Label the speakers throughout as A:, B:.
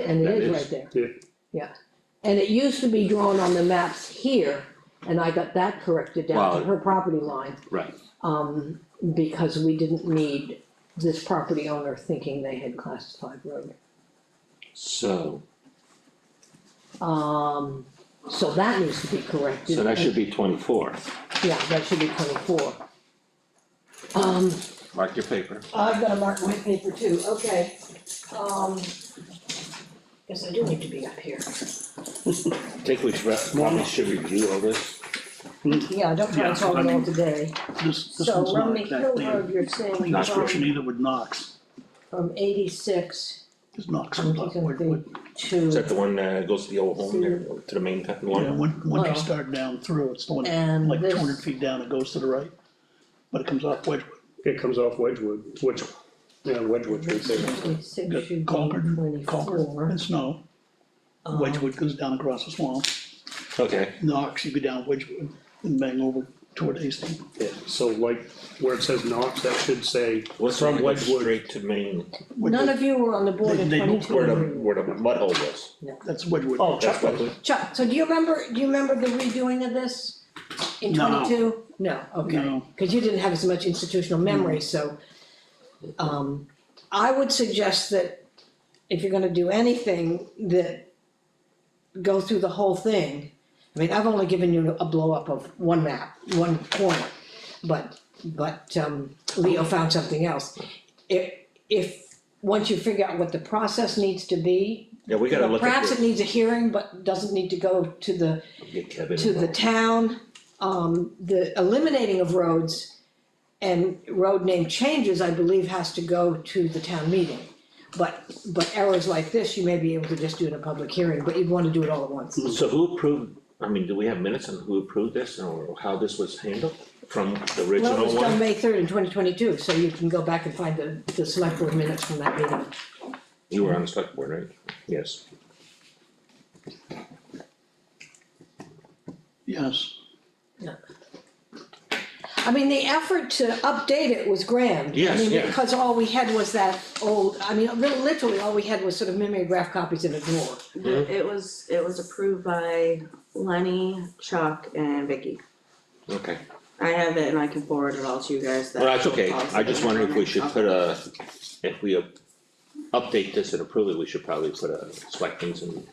A: and
B: That
A: it is
B: is-
A: right there.
B: yeah.
A: Yeah, and it used to be drawn on the maps here, and I got that corrected down
B: Wow.
A: to her property line,
B: Right,
A: um, because we didn't need this property owner thinking they had class five road.
B: so,
A: Um, so that needs to be corrected.
B: so that should be twenty-four.
A: Yeah, that should be twenty-four. Um,
B: Mark your paper.
A: I've got to mark my paper too, okay, um, guess I do need to be up here.
B: Think we should, probably should review all this.
A: Yeah, I don't mind
C: Yeah, I
A: talking all
C: mean-
A: today.
C: This, this
A: So
C: one's not
A: Romney Hill Road,
C: exactly
A: you're saying
B: Not
A: from-
C: description either with Knox,
A: from eighty-six
C: because Knox
A: I'm
C: is not,
A: thinking
C: what,
A: the-
C: what,
B: Is that
A: to,
B: the one that goes to the old home there, to the main cut
C: yeah,
B: one?
C: when, when
A: Well.
C: you start down through, it's the one,
A: And
C: like
A: this-
C: two hundred feet down, it goes to the right. But it comes off Wedgewood,
D: It comes off Wedgewood, which, yeah, Wedgewood's right there.
A: eighty-six
C: got
A: should be
C: Concord, Concord,
A: twenty-four.
C: and Snow,
A: um,
C: Wedgewood goes down across the swamp,
B: Okay,
C: Knox, you go down Wedgewood and bang over toward Hastings.
D: Yeah, so like, where it says Knox, that should say,
B: what's from
D: From Wedgewood.
B: Straight to main,
A: None of you were on the board
C: They-
A: in
C: they moved
B: where the,
A: twenty-two.
B: where the mud hole was.
C: That's Wedgewood.
D: oh,
B: That's
D: Chuck,
B: what,
A: Chuck, so do you remember, do you remember the redoing of this in
C: No.
A: twenty-two? No, okay,
C: No.
A: cause you didn't have as much institutional memory, so. Um, I would suggest that if you're gonna do anything, that go through the whole thing. I mean, I've only given you a blow-up of one map, one corner, but, but, um, Leo found something else. If, if, once you figure out what the process needs to be,
B: yeah, we gotta
A: well,
B: look at
A: perhaps it
B: the,
A: needs a hearing, but doesn't need to go to the,
B: get Kevin.
A: to the
B: involved.
A: town. Um, the eliminating of roads and road name changes, I believe, has to go to the town meeting. But, but errors like this, you may be able to just do in a public hearing, but you'd wanna do it all at once.
B: So who approved, I mean, do we have minutes on who approved this or how this was handled from the
A: Well, it
B: original
A: was done
B: one?
A: May third in twenty twenty-two, so you can go back and find the, the select board minutes from that meeting.
B: You were on the select board, right? Yes.
C: Yes,
A: I mean, the effort to update it was grand.
B: Yes,
A: I mean,
B: yeah.
A: because all we had was that old, I mean, li- literally, all we had was sort of mimeograph copies in a drawer.
B: Mhm.
E: It was, it was approved by Lenny, Chuck and Vicky.
B: Okay,
E: I have it and I can forward it all to you guys. the
B: well, that's
E: actual
B: okay, I
E: policy.
B: just wondered if we should put a, if we up- update this and approve it, we should probably put a selections and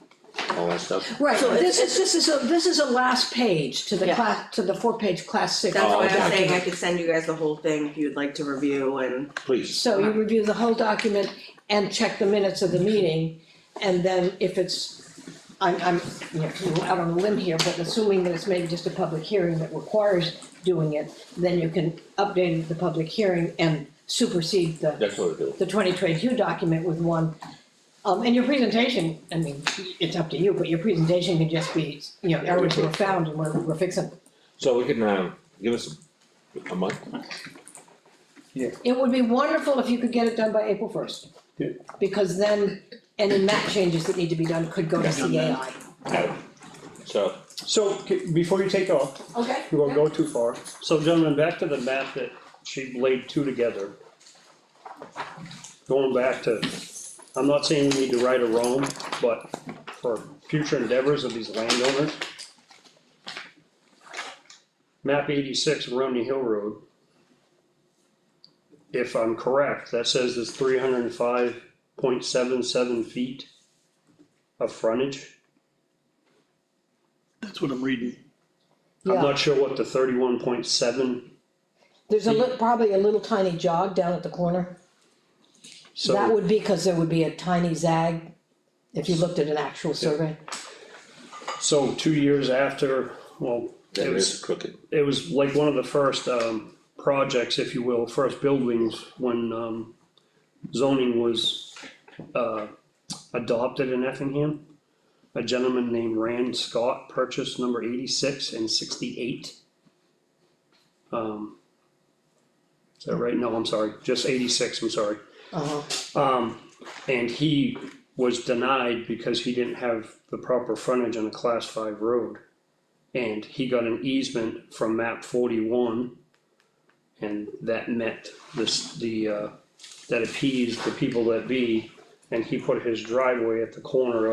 B: all that stuff.
A: Right,
E: So
A: this is, this is, a this is a last page to the
E: Yeah.
A: class, to the four-page class six.
E: That's
B: Oh,
E: why I'm saying I
A: document.
E: could send you guys the whole thing if you'd like to review and
B: Please,
A: So you review the whole document and check the minutes of the meeting, and then if it's, I'm, I'm, you know, out on a limb here, but assuming that it's maybe just a public hearing that requires doing it, then you can update the public hearing and supersede the
B: that's what we'll do.
A: the twenty twenty-two document with one. Um, and your presentation, I mean, it's up to you, but your presentation can just be, you know, errors were found and we're, we're fixing.
B: So we can, um, give us a month,
A: It would be wonderful if you could get it done by April first.
D: Yeah.
A: Because then any map changes that need to be done could go to CAI.
B: so,
D: so, c- before you take off,
A: Okay.
D: we won't go too far, so gentlemen, back to the map that she laid two together. Going back to, I'm not saying we need to right or wrong, but for future endeavors of these landowners. Map eighty-six, Romney Hill Road. If I'm correct, that says there's three hundred and five point seven seven feet of frontage.
C: that's what I'm reading.
D: I'm
A: Yeah,
D: not sure what the thirty-one point seven,
A: there's a li- probably a little tiny jog down at the corner. That
D: so,
A: would be because there would be a tiny zag if you looked at an actual survey.
D: so two years after, well,
B: that
D: it
B: is
D: was,
B: crooked.
D: it was like one of the first, um, projects, if you will, first buildings when, um, zoning was, uh, adopted in Effingham. A gentleman named Rand Scott purchased number eighty-six and sixty-eight. Um, is
B: Oh.
D: that right? No, I'm sorry, just eighty-six, I'm sorry.
A: Uh-huh.
D: Um, and he was denied because he didn't have the proper frontage on a class five road. And he got an easement from map forty-one. And that met this, the, uh, that appeased the people that be And he put his driveway at the corner